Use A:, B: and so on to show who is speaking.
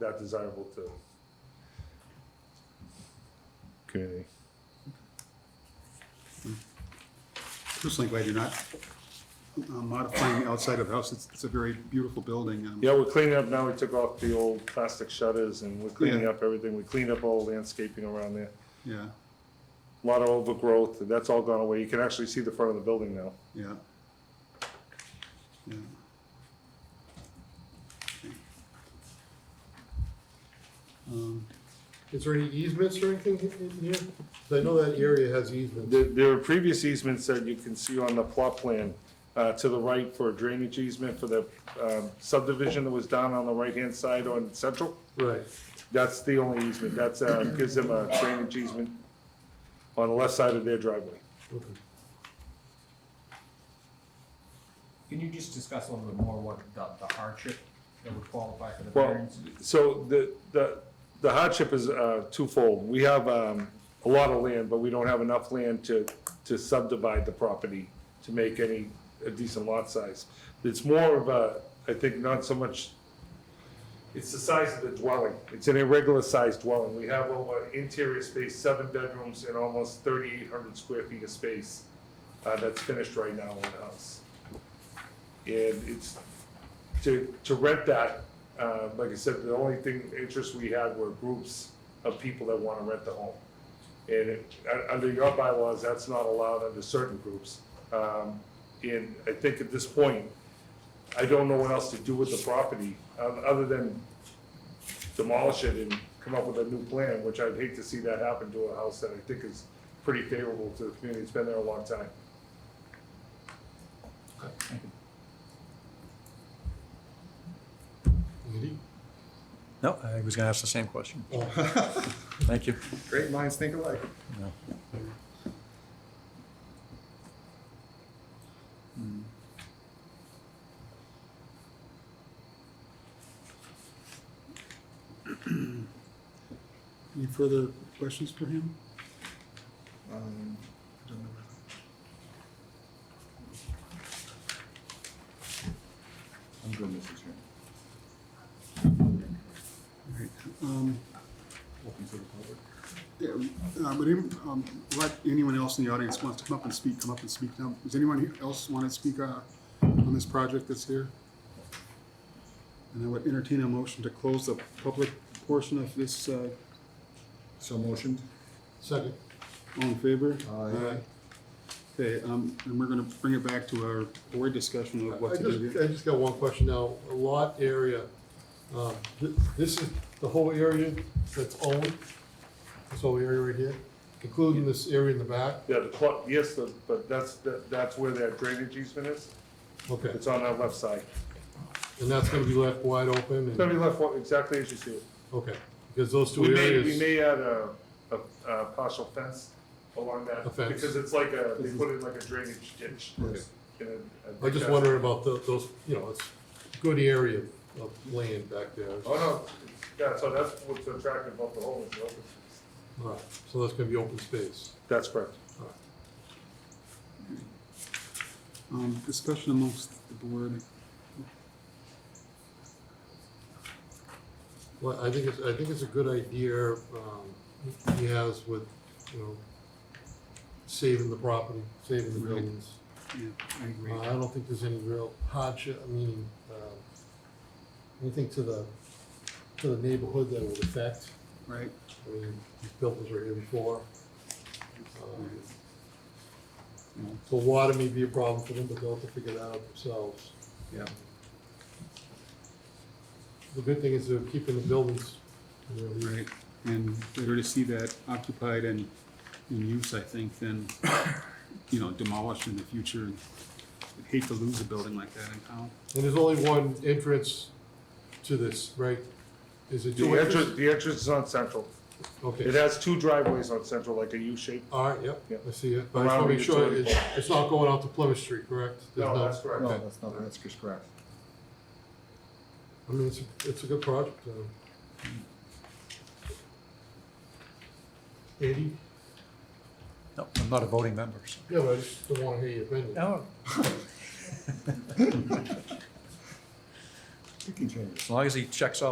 A: not desirable to.
B: Okay.
C: Personally glad you're not uh, modifying the outside of the house. It's, it's a very beautiful building. um,
A: Yeah, we're cleaning up now, we took off the old plastic shutters and we're cleaning
C: Yeah.
A: up everything, we cleaned up all the landscaping around there.
C: Yeah,
A: A Lot of overgrowth, and that's all gone away, you can actually see the front of the building now.
C: yeah. Yeah. Um,
D: Is there any easements or anything in here? 'Cause I know that area has easements.
A: There, there are previous easements that you can see on the plot plan, uh, to the right for drainage easement for the, um, subdivision that was down on the right-hand side on Central.
D: Right.
A: That's the only easement, that's, uh, gives them a drainage easement on the left side of their driveway.
D: Okay.
E: Can you just discuss a little bit more what the the hardship that would qualify for the
A: Well,
E: variance?
A: so the, the, the hardship is, uh, twofold. We have, um, a lot of land, but we don't have enough land to, to subdivide the property to make any, a decent lot size. It's more of a, I think, not so much, it's the size of the dwelling. It's an irregular sized dwelling. We have over interior space, seven bedrooms and almost thirty-eight hundred square feet of space, uh, that's finished right now in the house. And it's, to, to rent that, uh, like I said, the only thing, interest we had were groups of people that wanna rent the home. And it, uh, under your bylaws, that's not allowed under certain groups. Um, and I think at this point, I don't know what else to do with the property, um, other than demolish it and come up with a new plan, which I'd hate to see that happen to a house that I think is pretty favorable to the community, it's been there a long time.
D: Andy?
F: No, I was going to ask the same question.
C: oh,
F: Thank you.
C: Great minds think alike.
F: No.
C: Any further questions for him?
F: I'm good, Mr. Chairman.
C: All right, um,
F: Open to the public.
C: Yeah, uh, would any- um, let anyone else in the audience wants to come up and speak, come up and speak now. Does anyone here else want to speak uh, on this project that's here? And I would entertain a motion to close the public portion of this. uh,
B: So motioned?
D: Second.
C: All in favor?
B: Aye.
C: Okay, um, and we're going to bring it back to our board discussion of
D: I
C: what to do.
D: just,
C: here.
D: I just got one question now. A Lot area, um, th- this is the whole area that's owned, this whole area right here, including this area in the back?
A: Yeah, the plot, yes, the- but that's, that- that's where that drainage easement is,
D: Okay,
A: it's on that left side.
D: and that's gonna be left wide open
A: It's gonna be
D: and,
A: left exactly as you see it.
D: okay, because those two
A: We may, we
D: areas,
A: may add a, a, a partial fence along that,
D: A fence.
A: because it's like a, they put in like a drainage ditch.
D: Okay.
A: And I think
D: I'm just
A: that's-
D: wondering about tho- those, you know, it's good area of land back there.
A: Oh, no, yeah, so that's what's attractive about the whole, is the open space.
D: All right, So that's gonna be open space.
A: That's correct.
D: All right.
C: Um, Discussion amongst the board.
D: Well, I think it's, I think it's a good idea, um, he has with, you know, saving the property, saving the
C: Right.
D: buildings.
C: Yeah, I agree.
D: Uh, I don't think there's any real hardship, I mean, um, anything to the, to the neighborhood that would affect.
C: Right.
D: I mean, these buildings were here before. Um,
C: Yeah.
D: So water may be a problem for them, but they'll have to figure that out themselves.
C: Yeah.
D: The good thing is they're keeping the buildings, you know,
C: Right, and better to see that occupied and in use, I think, than, you know, demolished in the future. I'd Hate to lose a building like that in town.
D: And there's only one entrance to this, right? Is it two
A: The entrance,
D: entrances?
A: the entrance is on Central. It
D: Okay,
A: has two driveways on Central, like a U shape.
D: all right, yep,
A: Yep.
D: I see it. But I just
A: Around
D: wanna make
A: the
D: sure
A: utility.
D: it's, it's not going out to Plymouth Street, correct? There's
A: No, that's correct.
B: No,
D: Okay.
B: that's not, that's just correct.
D: I mean, it's, a- it's a good project. um. Andy?
F: No, I'm not a voting member, so.
D: Yeah, but I just don't wanna hear your opinion.
F: No.
B: You can change it.
F: As long as he checks off